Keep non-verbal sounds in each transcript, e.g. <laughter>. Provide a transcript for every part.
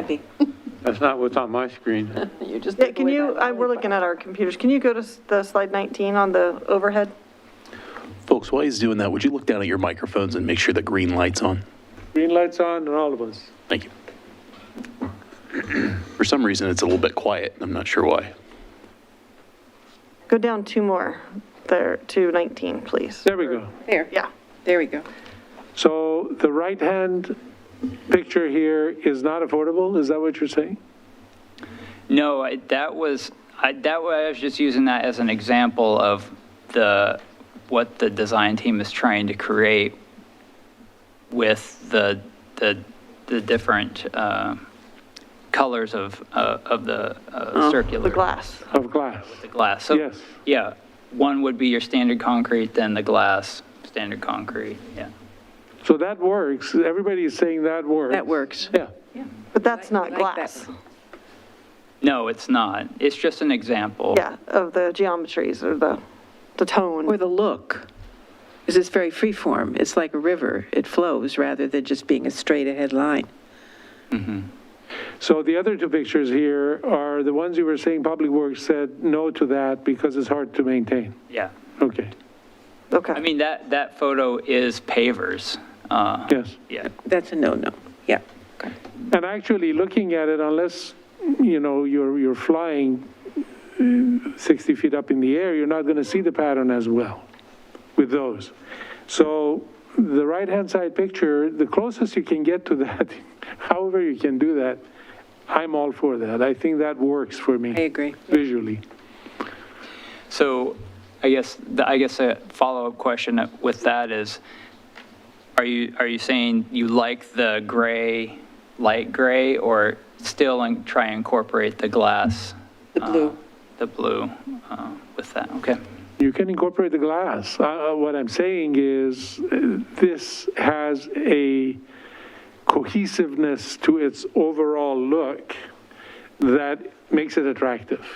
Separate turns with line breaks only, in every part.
Happy.
That's not what's on my screen.
You just.
Yeah,
took
can
away
you,
that
I, we're
really
looking at our computers. Can you go to s- the slide 19 on the overhead?
Folks, while he's doing that, would you look down at your microphones and make sure the green light's on?
Green light's on on all of us.
Thank you. <clears throat> For some reason, it's a little bit quiet. I'm not sure why.
Go down two more there to 19, please.
There we go.
There,
Yeah.
there we go.
So the right-hand picture here is not affordable, is that what you're saying?
No, I- that was, I, that was, I was just using that as an example of the, what the design team is trying to create with the, the, the different, uh, colors of, uh, of the uh, circular.
Uh-huh. The glass.
Of glass?
The glass. So,
Yes.
Yeah, one would be your standard concrete, then the glass, standard concrete, yeah.
So that works, everybody is saying that works.
That works.
Yeah,
But that's not
I like that
glass.
one.
No, it's not. It's just an example.
Yeah, of the geometries or the, the
Or
tone.
the look, is it's very freeform. It's like a river. It flows rather than just being a straight ahead line.
so the other two pictures here are the ones you were saying Public Works said no to that because it's hard to maintain.
Yeah.
Okay,
Okay.
I mean, that, that photo is pavers. uh,
yes.
Yeah.
That's a no-no. Yeah.
And actually, looking at it, unless, you know, you're, you're flying uh, 60 feet up in the air, you're not going to see the pattern as well with those. So the right-hand side picture, the closest you can get to that, <laughs> however you can do that, I'm all for that. I think that works for
I
me
agree.
visually.
So I guess, the- I guess a follow-up question with that is, are you, are you saying you like the gray, light gray, or still in- try and incorporate the glass?
The
uh,
blue.
The blue uh, with that, okay.
You can incorporate the glass. Uh, uh, What I'm saying is, uh, this has a cohesiveness to its overall look that makes it attractive.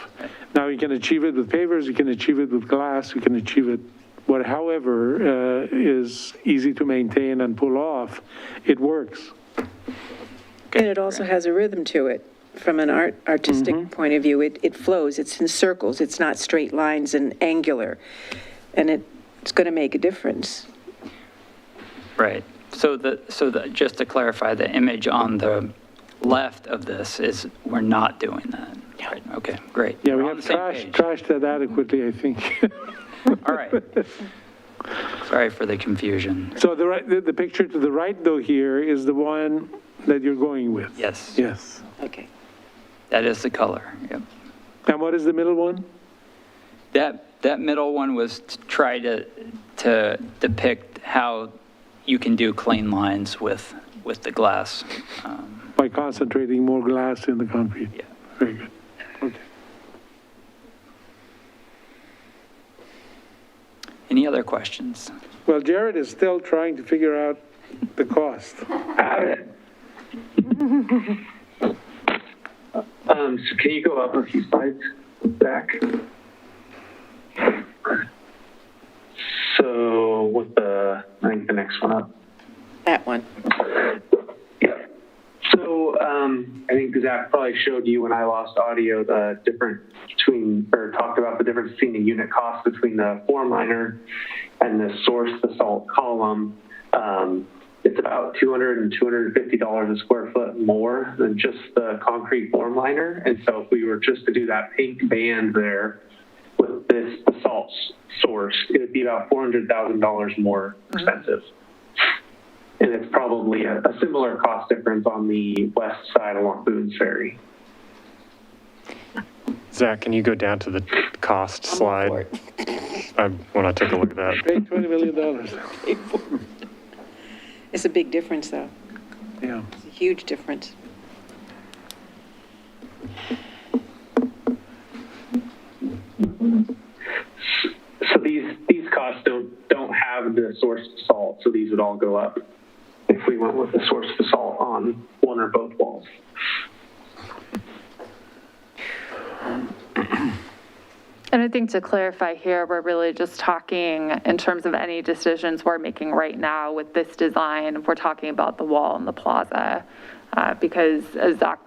Now, you can achieve it with pavers, you can achieve it with glass, you can achieve it, what, however, uh, is easy to maintain and pull off, it works.
And it also has a rhythm to it from an art, artistic point of view. It, it flows, it's in circles, it's not straight lines and angular. And it, it's going to make a difference.
Right. So the, so the, just to clarify, the image on the left of this is, we're not doing that. Right, okay, great.
Yeah, we
We're
have
on the same
trashed,
page.
trashed that adequately, I think. <laughs>
All right. Sorry for the confusion.
So the right, the the picture to the right, though, here is the one that you're going with.
Yes,
Yes.
Okay.
that is the color, yep.
And what is the middle one?
That, that middle one was to try to, to depict how you can do clean lines with, with the glass. Um,
By concentrating more glass in the concrete.
Yeah.
Very good. Okay.
Any other questions?
Well, Jared is still trying to figure out the cost.
Um, so can you go up a few slides back? So with the, I think the next one up.
That one.
Yeah. So um, I think Zach probably showed you when I lost audio the difference between, or talked about the difference between the unit cost between the form liner and the source basalt column. Um, it's about 200 and 250 dollars a square foot more than just the concrete form liner. And so if we were just to do that pink band there with this basalt s- source, it would be about 400 thousand dollars more expensive. And it's probably a, a similar cost difference on the west side along Boone's Ferry.
Zach, can you go down to the cost slide? I want to take a look at that.
Pay $20 million.
It's a big difference, though.
Yeah.
It's a huge difference.
So these, these costs don't, don't have the source basalt, so these would all go up if we went with the source basalt on one or both walls.
And I think to clarify here, we're really just talking in terms of any decisions we're making right now with this design, we're talking about the wall and the plaza. uh, Because as Zach